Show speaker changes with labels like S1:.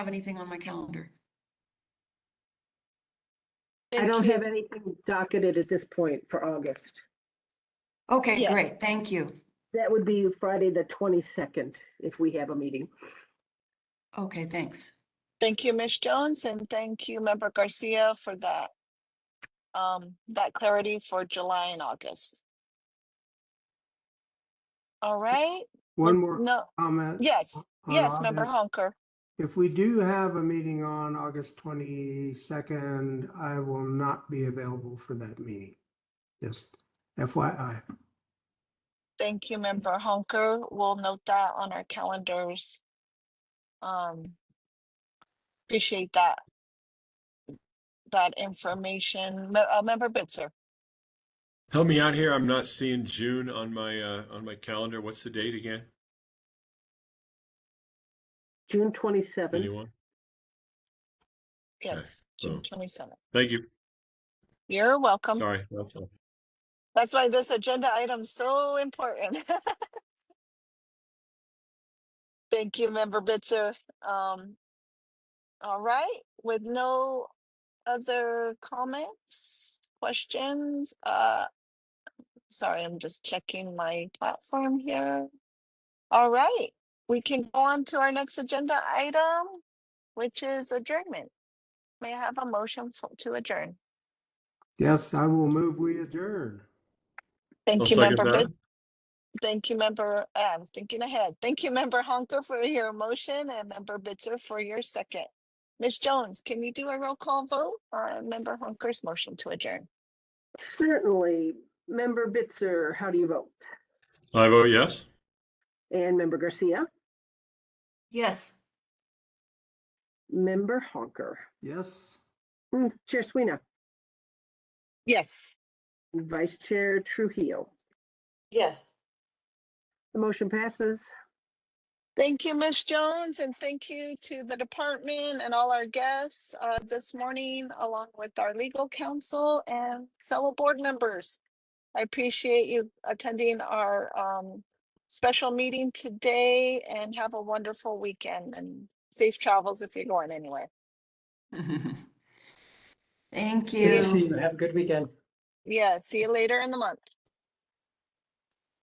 S1: have anything on my calendar.
S2: I
S3: Thank
S2: don't
S3: you.
S2: have anything docketed at this point for August.
S1: Okay,
S3: Yeah.
S1: great, thank you.
S2: That would be Friday, the 22nd, if we have a meeting.
S1: Okay, thanks.
S3: Thank you, Ms. Jones, and thank you, Member Garcia, for that. Um, that clarity for July and August. All right,
S4: One more
S3: no,
S4: comment.
S3: yes,
S4: on
S3: yes, Member
S4: August.
S3: Honker.
S4: If we do have a meeting on August 22nd, I will not be available for that meeting. Just FYI.
S3: Thank you, Member Honker. We'll note that on our calendars. Um, appreciate that. That information. Me- uh, Member Bitzer,
S5: Help me out here. I'm not seeing June on my uh, on my calendar. What's the date again?
S2: June 27th.
S5: Anyone?
S3: yes, June
S5: so-
S3: twenty-seventh.
S5: Thank you.
S3: You're welcome.
S5: Sorry. That's all.
S3: That's why this agenda item's so important. Thank you, Member Bitzer. Um, all right, with no other comments, questions, uh, sorry, I'm just checking my platform here. All right, we can go on to our next agenda item, which is adjournment. May I have a motion for- to adjourn?
S4: Yes, I will move. We adjourn.
S5: I'll
S3: Thank you,
S5: second
S3: Member Bitzer.
S5: that.
S3: Thank you, member, uh, I was thinking ahead. Thank you, member Honker for your motion and member Bitzer for your second. Ms. Jones, can you do a roll call vote on member Honker's motion to adjourn?
S2: Certainly, Member Bitzer, how do you vote?
S5: I vote oh, yes.
S2: And Member Garcia,
S1: Yes.
S2: Member Honker,
S4: Yes.
S2: Mm, Chair Sweeney,
S3: Yes.
S2: Vice Chair Trujillo.
S1: Yes.
S2: The motion passes.
S3: Thank you, Ms. Jones, and thank you to the department and all our guests uh, this morning, along with our legal counsel and fellow board members. I appreciate you attending our um, special meeting today and have a wonderful weekend and safe travels if you're going anywhere.
S1: Thank
S6: See you
S1: you.
S6: soon. Have a good weekend.
S3: Yeah, see you later in the month.